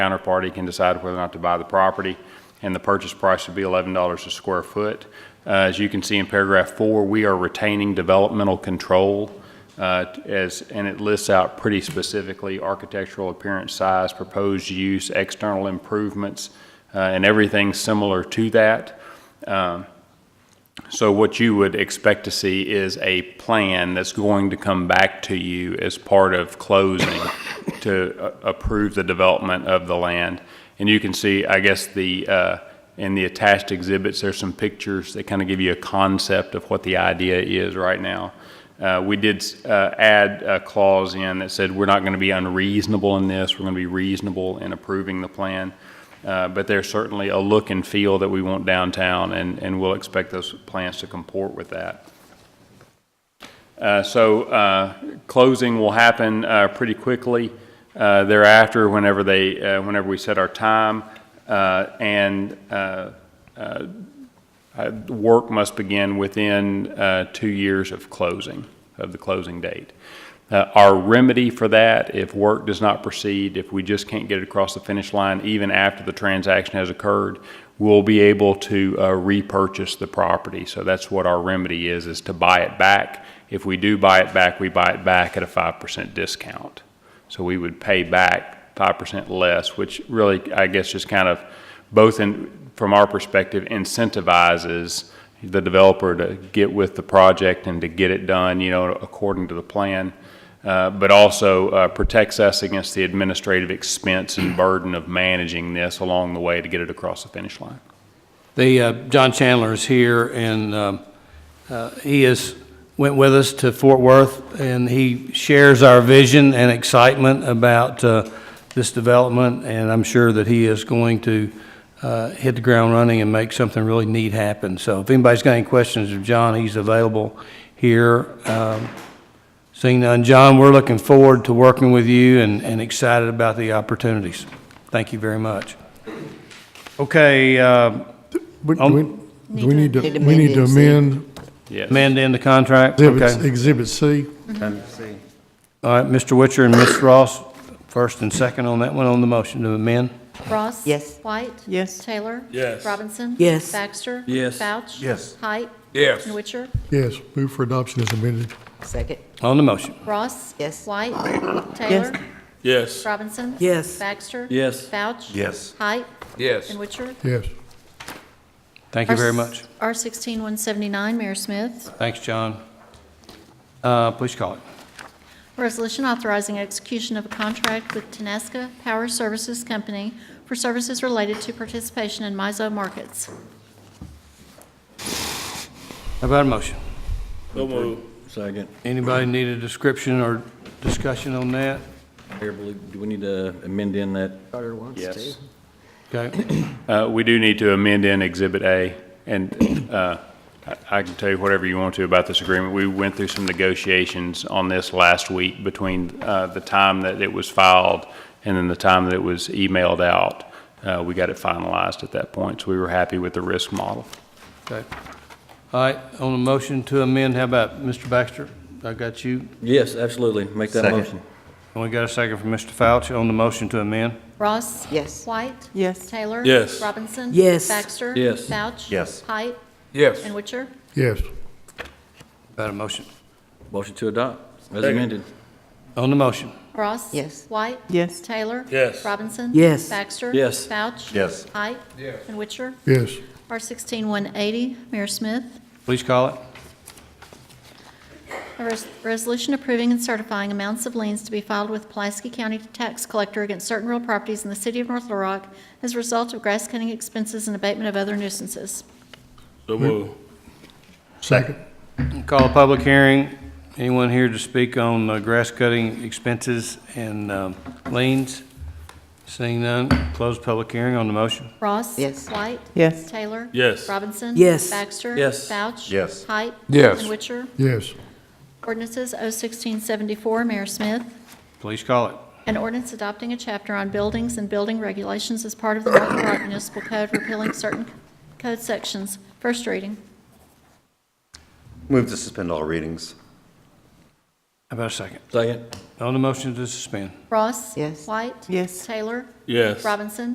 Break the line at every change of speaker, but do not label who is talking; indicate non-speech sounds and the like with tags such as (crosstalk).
counterparty can decide whether or not to buy the property, and the purchase price would be $11 a square foot. Uh, As you can see in paragraph four, we are retaining developmental control uh, as, and it lists out pretty specifically architectural appearance, size, proposed use, external improvements, uh, and everything similar to that. So what you would expect to see is a plan that's going to come back to you as part of closing (coughs) to uh, approve the development of the land. And you can see, I guess, the, uh, in the attached exhibits, there's some pictures that kind of give you a concept of what the idea is right now. Uh, We did uh, add a clause in that said, we're not going to be unreasonable in this, we're going to be reasonable in approving the plan. Uh, But there's certainly a look and feel that we want downtown, and, and we'll expect those plans to comport with that. Uh, So uh, closing will happen uh, pretty quickly uh, thereafter, whenever they, uh, whenever we set our time. uh, And uh, uh, uh, work must begin within uh, two years of closing, of the closing date. Uh, Our remedy for that, if work does not proceed, if we just can't get it across the finish line, even after the transaction has occurred, we'll be able to uh, repurchase the property. So that's what our remedy is, is to buy it back. If we do buy it back, we buy it back at a 5% discount. So we would pay back 5% less, which really, I guess, just kind of both in, from our perspective, incentivizes the developer to get with the project and to get it done, you know, according to the plan, uh, but also uh, protects us against the administrative expense and burden of managing this along the way to get it across the finish line.
The, uh, John Chandler is here, and um, uh, he is, went with us to Fort Worth, and he shares our vision and excitement about uh, this development, and I'm sure that he is going to uh, hit the ground running and make something really neat happen. So if anybody's got any questions of John, he's available here. Um, Seeing none, John, we're looking forward to working with you and and excited about the opportunities. Thank you very much. Okay, uh,
But do
Um,
we, do we need to,
Need to
we need to
amend
amend
Yes.
Amend in the contract?
Exhibit,
Okay.
Exhibit C?
All right, Mr. Witcher and Ms. Ross, first and second on that one, on the motion to amend.
Ross?
Yes.
White?
Yes.
Taylor? Yes. Robinson?
Yes.
Baxter?
Yes.
Vouch?
Yes.
Height?
Yes.
Witcher?
Yes, move for adoption as amended.
Second.
On the motion.
Ross?
Yes.
White? Taylor?
Yes.
Robinson?
Yes.
Baxter?
Yes.
Vouch?
Yes.
Height?
Yes.
And Witcher?
Yes,
Thank you very much.
R sixteen one seventy-nine, Mayor Smith.
Thanks, John. Uh, Please call it.
Resolution authorizing execution of a contract with Tenaska Power Services Company for services related to participation in MISO markets.
How about a motion?
So move. Second.
Anybody need a description or discussion on that?
Mayor, believe- do we need to amend in that?
Yes.
Okay,
Uh, We do need to amend in Exhibit A, and uh, I I can tell you whatever you want to about this agreement. We went through some negotiations on this last week between uh, the time that it was filed and then the time that it was emailed out. Uh, We got it finalized at that point, so we were happy with the risk model.
okay. All right, on the motion to amend, how about Mr. Baxter? I got you.
Yes, absolutely, make that motion.
And we got a second from Mr. Fauch on the motion to amend.
Ross?
Yes.
White?
Yes.
Taylor?
Yes.
Robinson?
Yes.
Baxter?
Yes.
Vouch?
Yes.
Height?
Yes.
And Witcher?
yes,
About a motion.
Motion to adopt, as
Second.
amended.
On the motion.
Ross?
Yes.
White?
Yes.
Taylor?
Yes.
Robinson?
Yes.
Baxter?
Yes.
Vouch?
Yes.
Height? Yes. And Witcher?
yes,
R sixteen one eighty, Mayor Smith.
Please call it.
A res- resolution approving and certifying amounts of liens to be filed with Pulaski County Tax Collector against certain real properties in the city of North Little Rock as a result of grass cutting expenses and abatement of other nuisances.
So move.
second,
Call a public hearing. Anyone here to speak on uh, grass cutting expenses and um, liens? Seeing none, close public hearing on the motion.
Ross?
Yes.
White?
Yes.
Taylor?
Yes.
Robinson?
Yes.
Baxter?
Yes.
Vouch?
Yes.
Height?
Yes.
And Witcher?
yes,
Ordinances O sixteen seventy-four, Mayor Smith.
Please call it.
An ordinance adopting a chapter on buildings and building regulations as part of the North Little Rock Municipal Code repealing certain code sections. First reading.
Move to suspend all readings.
about a second?
Second.
On the motion to suspend?
Ross?
Yes.
White?
Yes.
Taylor?
Yes.
Robinson?